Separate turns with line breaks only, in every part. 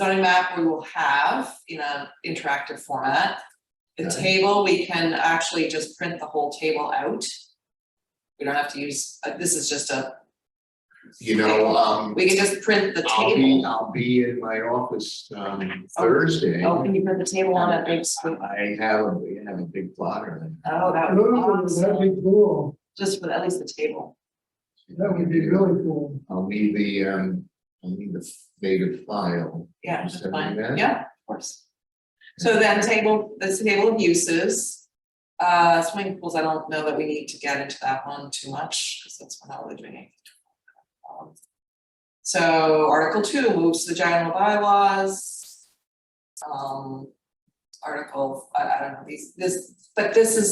zoning map we will have in an interactive format. The
Okay.
table, we can actually just print the whole table out. We don't have to use, uh, this is just a,
You know, um,
we can just print the
I'll be,
table.
I'll be in my office, um, Thursday.
Oh, can you put the table on a big screen?
I have, a- we have a big plotter.
Oh, that would be
Ooh, That'd
awesome,
be cool,
just with at least the table.
that would be really cool.
I'll need the, um, I'll need the native file.
Yeah,
You
that's
send me
fine.
that?
Yeah, of course. So then table, this table of uses. Uh, swimming pools, I don't know that we need to get into that one too much, because that's not really doing anything. Um, So article two moves to the general bylaws. Um, article, I, I don't know, these, this, but this is.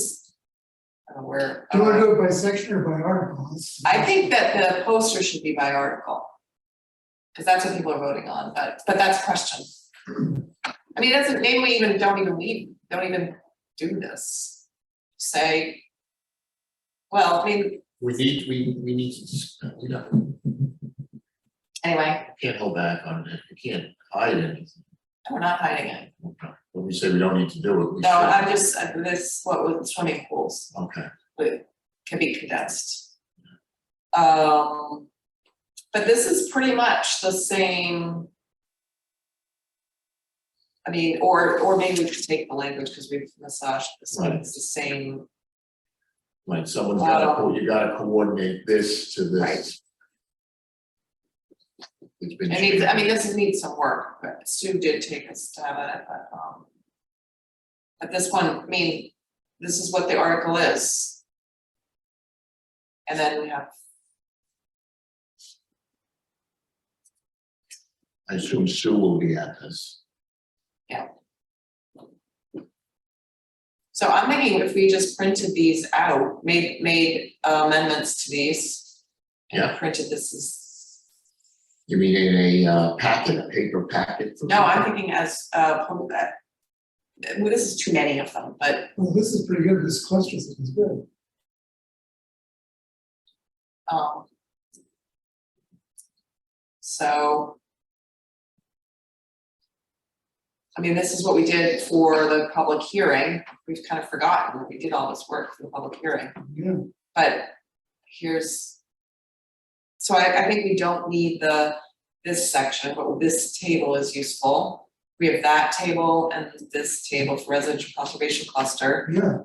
I don't know where.
Do you wanna
uh,
do it by section or by article? That's-
I think that the poster should be by article. Cause that's what people are voting on, but, but that's question. I mean, that's, maybe we even, don't even need, don't even do this. Say. Well, I mean,
We need, we, we need, to- we don't,
anyway,
can't hold back on it, we can't hide anything.
we're not hiding it.
When we say we don't need to do it, we should.
No, I'm just, uh, this, what was swimming pools
Okay.
would, can be condensed. Um, but this is pretty much the same. I mean, or, or maybe we could take the language, because we've massaged this, one. it's the same,
Like someone's gotta, co- you gotta coordinate this to
Right.
this. It's been.
it needs, I mean, this needs some work, but Sue did take a stab at it, but, um. But this one, I mean, this is what the article is. And then we have,
I assume Sue will be at this.
so I'm thinking if we just printed these out, made, made amendments to these. and
Yeah.
Printed this as
You mean in a uh, packet, a paper packet? for
No, I'm
people?
thinking as, uh, po- uh, well, this is too many of them, but,
Well, this is pretty good, this cluster is good.
um. So. I mean, this is what we did for the public hearing. We've kind of forgotten that we did all this work for the public hearing,
Yeah,
but here's. So I, I think we don't need the, this section, but this table is useful. We have that table and this table for residential conservation cluster.
yeah,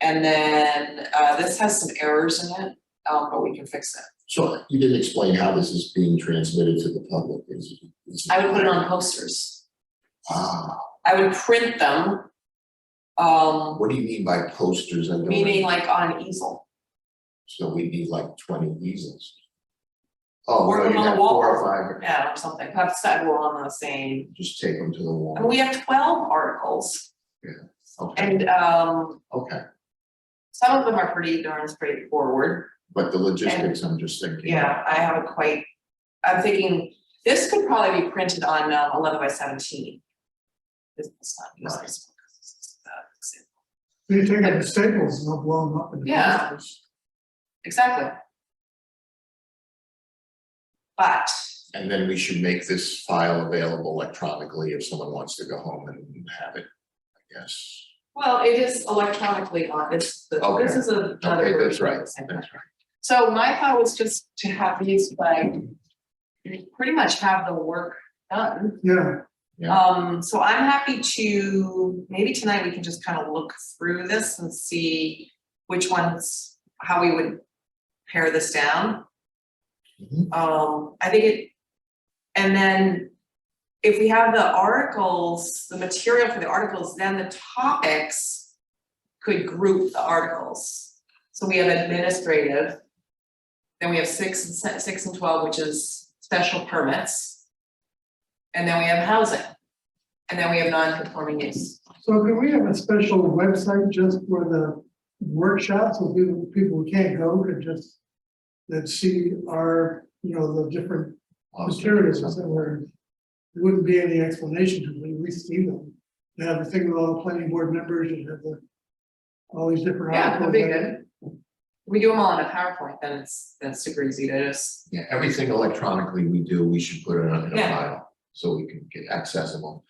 And then, uh, this has some errors in it, um, but we can fix it.
So you didn't explain how this is being transmitted to the public, is it? is
I would put it on posters.
Ah,
I would print them. Um,
what do you mean by posters? I don't
meaning like on easel.
So we need like twenty easels. Oh,
Or
well, you
on the
have four
wall.
or five,
Yeah, or something, perhaps that we're on the same,
just take them to the
and
wall.
we have twelve articles.
Okay,
And, um,
okay,
some of them are pretty darn straightforward,
but the logistics, I'm just thinking.
yeah, I haven't quite. I'm thinking, this could probably be printed on um, eleven by seventeen. This is not, use this one, 'cause this is, uh, it's-
you take out the staples and I'll blow them up in the
Yeah.
clusters.
Exactly. But,
And then we should make this file available electronically if someone wants to go home and have it, I guess.
well, it is electronically on, it's, the- this
Okay.
is a- another
Okay,
version.
that's right,
of the same thing.
that's right.
So my thought was just to have these like, pretty much have the work done.
Yeah,
Yeah.
Um, so I'm happy to, maybe tonight we can just kind of look through this and see which ones, how we would pare this down.
Mhm.
Um, I think it, and then if we have the articles, the material for the articles, then the topics could group the articles. So we have administrative, then we have six and se- six and twelve, which is special permits. And then we have housing, and then we have non-conforming use.
so can we have a special website just for the workshops, so people, people who can't go could just that see our, you know, the different materials that were, there wouldn't be any explanation to when we see them. You have the thing with all the planning board members, you have the, all these different.
Yeah, that'd
articles
be
that-
good. We do them all in a PowerPoint, then it's, then it's super easy to just,
Yeah, everything electronically we do, we should put it on in a
Yeah.
file. so we can get accessible.